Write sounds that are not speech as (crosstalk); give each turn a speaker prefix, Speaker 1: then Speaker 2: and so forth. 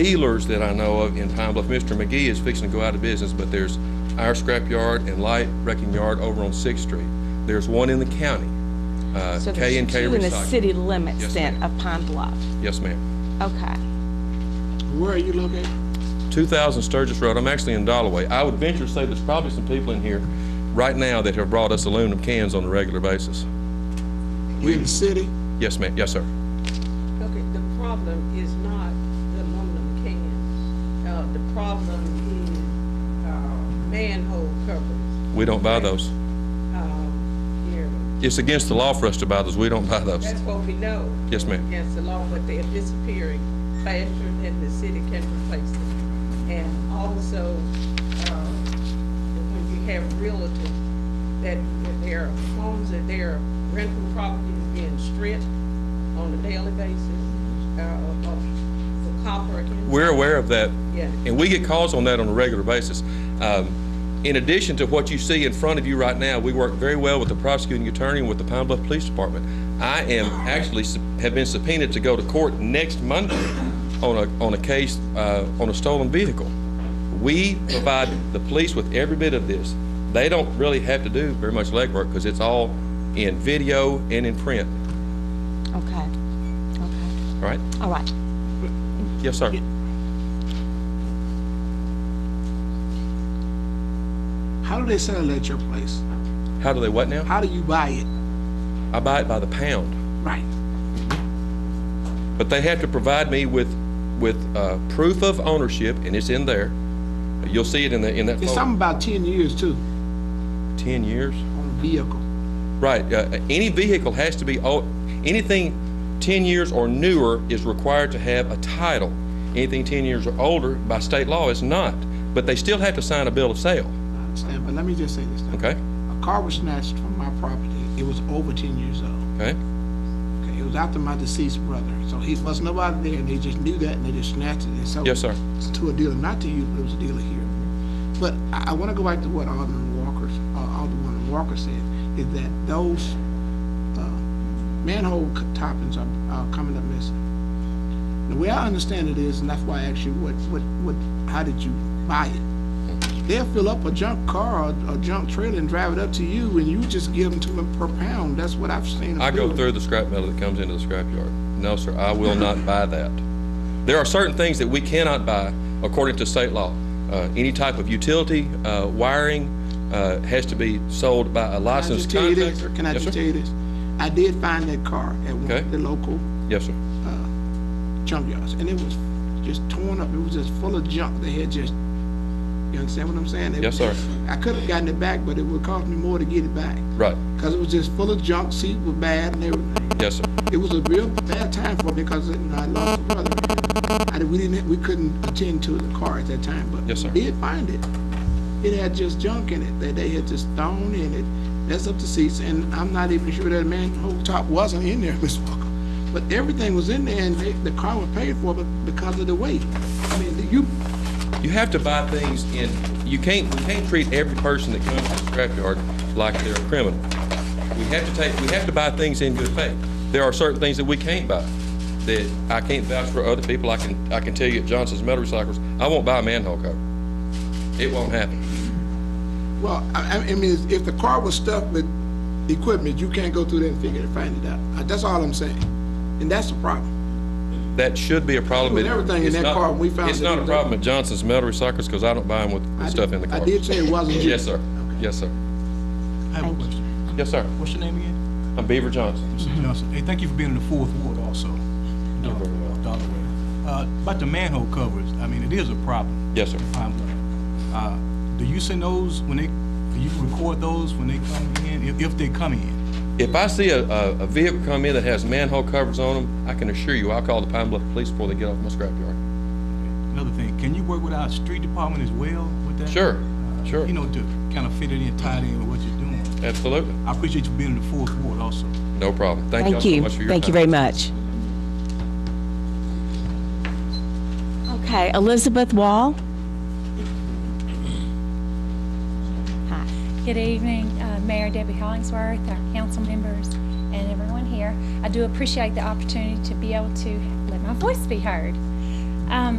Speaker 1: dealers that I know of in Pine Bluff, Mr. McGee is fixing to go out of business, but there's our scrapyard and light wrecking yard over on Sixth Street. There's one in the county, uh,
Speaker 2: So
Speaker 1: K
Speaker 2: there's
Speaker 1: and K
Speaker 2: two in the
Speaker 1: Recycling.
Speaker 2: city limits
Speaker 1: Yes,
Speaker 2: then
Speaker 1: ma'am.
Speaker 2: of Pine Bluff.
Speaker 1: Yes, ma'am.
Speaker 2: Okay.
Speaker 3: Where are you located?
Speaker 1: 2,000 Sturgis Road, I'm actually in Dollaway. I would venture to say there's probably some people in here right now that have brought us aluminum cans on a regular basis.
Speaker 3: You in the city?
Speaker 1: Yes, ma'am, yes, sir.
Speaker 4: Okay, the problem is not the aluminum cans. Uh, the problem is, uh, manhole covers,
Speaker 1: We don't buy those.
Speaker 4: um, here.
Speaker 1: It's against the law for us to buy those, we don't buy those.
Speaker 4: That's what we know.
Speaker 1: Yes, ma'am.
Speaker 4: Against the law, but they're disappearing faster than the city can replace them. And also, uh, when you have realtors, that that their homes, that their rental properties being stripped on a daily basis, uh, of, for copper. and-
Speaker 1: We're aware of that.
Speaker 4: Yeah.
Speaker 1: And we get calls on that on a regular basis. Um, In addition to what you see in front of you right now, we work very well with the prosecuting attorney and with the Pine Bluff Police Department. I am actually, sub- have been subpoenaed to go to court next Monday on a, on a case, uh, on a stolen vehicle. We provide the police with every bit of this. They don't really have to do very much legwork because it's all in video and in print,
Speaker 2: Okay. Okay.
Speaker 1: all right?
Speaker 2: All right.
Speaker 1: Yes, sir.
Speaker 3: How do they sell it at your place?
Speaker 1: How do they what now?
Speaker 3: How do you buy it?
Speaker 1: I buy it by the pound.
Speaker 3: Right.
Speaker 1: But they have to provide me with, with uh, proof of ownership, and it's in there. You'll see it in the, in that
Speaker 3: It's
Speaker 1: folder.
Speaker 3: something about ten years too,
Speaker 1: 10 years?
Speaker 3: on a vehicle.
Speaker 1: Right. uh, Any vehicle has to be, o- anything 10 years or newer is required to have a title. Anything 10 years or older, by state law, is not. But they still have to sign a bill of sale,
Speaker 3: I understand, but let me just say this. now.
Speaker 1: okay?
Speaker 3: A car was snatched from my property. It was over ten years old.
Speaker 1: Okay?
Speaker 3: Okay, it was after my deceased brother, so he was nobody there, and they just knew that, and they just snatched it and sold it.
Speaker 1: Yes, sir.
Speaker 3: To a dealer, not to you, but it was a dealer here. But I, I want to go back to what Alderman Walker's, uh, Alderman Walker said, is that those uh, manhole c- toppings are, are coming up missing. The way I understand it is, and that's why I asked you, what, what, what, how did you buy it? They'll fill up a junk car or a junk trailer and drive it up to you, and you just give them to them per pound. That's what I've seen. them
Speaker 1: I go
Speaker 3: do.
Speaker 1: through the scrap metal that comes into the scrapyard. No, sir, I will
Speaker 3: (laughs)
Speaker 1: not buy that. There are certain things that we cannot buy according to state law. Uh, Any type of utility, uh, wiring uh, has to be sold by a
Speaker 3: Can I just
Speaker 1: licensed
Speaker 3: tell you this?
Speaker 1: contractor.
Speaker 3: Can I
Speaker 1: Yes,
Speaker 3: just
Speaker 1: sir.
Speaker 3: tell you this? I did find that car at one
Speaker 1: Okay.
Speaker 3: of the local
Speaker 1: Yes, sir.
Speaker 3: junkyards, and it was just torn up. It was just full of junk. They had just, you understand what I'm saying? It
Speaker 1: Yes,
Speaker 3: was-
Speaker 1: sir.
Speaker 3: I could have gotten it back, but it would cost me more to get it back.
Speaker 1: Right,
Speaker 3: Because it was just full of junk, seats were bad and everything.
Speaker 1: yes, sir.
Speaker 3: It was a real bad time for me because you know, I lost a brother. I, did- we didn't, we couldn't attend to the car at that time, but
Speaker 1: Yes, sir.
Speaker 3: we did find it. It had just junk in it that they had just thrown in it. That's up to seats, and I'm not even sure that manhole top wasn't in there, (laughs) Miss Walker. But everything was in there, and they, the car was paid for, but because of the weight. I mean, you,
Speaker 1: You have to buy things in, you can't, we can't treat every person that comes to the scrapyard like they're a criminal. We have to take, we have to buy things in good faith. There are certain things that we can't buy, that I can't vouch for other people. I can, I can tell you at Johnson's Metal Recyclers, I won't buy a manhole cover. It won't happen.
Speaker 3: well, I, I I mean, if the car was stuffed with equipment, you can't go through there and figure it, find it out. That's all I'm saying, and that's the problem.
Speaker 1: That should be a problem.
Speaker 3: With
Speaker 1: but
Speaker 3: everything in
Speaker 1: it's
Speaker 3: that
Speaker 1: not-
Speaker 3: car, we found
Speaker 1: It's
Speaker 3: it
Speaker 1: not a
Speaker 3: was
Speaker 1: problem
Speaker 3: there.
Speaker 1: at Johnson's Metal Recyclers, because I don't buy them with
Speaker 3: I
Speaker 1: the stuff
Speaker 3: did-
Speaker 1: in the
Speaker 3: I
Speaker 1: car.
Speaker 3: did say it wasn't
Speaker 1: (laughs)
Speaker 3: you.
Speaker 1: Yes, sir. Yes, sir.
Speaker 5: I have
Speaker 2: Thank you.
Speaker 5: a
Speaker 2: Mm-hmm.
Speaker 5: question.
Speaker 1: Yes, sir.
Speaker 5: What's your name again?
Speaker 1: I'm Beaver Johnson.
Speaker 5: Mr. Johnson. Hey, thank you for being in the fourth ward also. You're
Speaker 1: very welcome.
Speaker 5: Uh, about the manhole covers, I mean, it is a problem.
Speaker 1: Yes, sir.
Speaker 5: Um, uh, do you send those when they, do you record those when they come in, if, if they come in?
Speaker 1: If I see a, a a vehicle come in that has manhole covers on them, I can assure you, I'll call the Pine Bluff Police before they get off my scrapyard.
Speaker 5: Another thing, can you work with our street department as well with that?
Speaker 1: Sure, sure,
Speaker 5: You know, to kind of fit it in, tie it in with what you're doing.
Speaker 1: absolutely,
Speaker 5: I appreciate you being in the fourth ward also.
Speaker 1: no problem. Thank y'all
Speaker 2: Thank
Speaker 1: so
Speaker 2: you.
Speaker 1: much for your time.
Speaker 2: Thank you very much. Okay, Elizabeth Wall? Hi.
Speaker 6: Good evening, uh, Mayor Debbie Hollingsworth, our council members, and everyone here. I do appreciate the opportunity to be able to let my voice be heard. Um,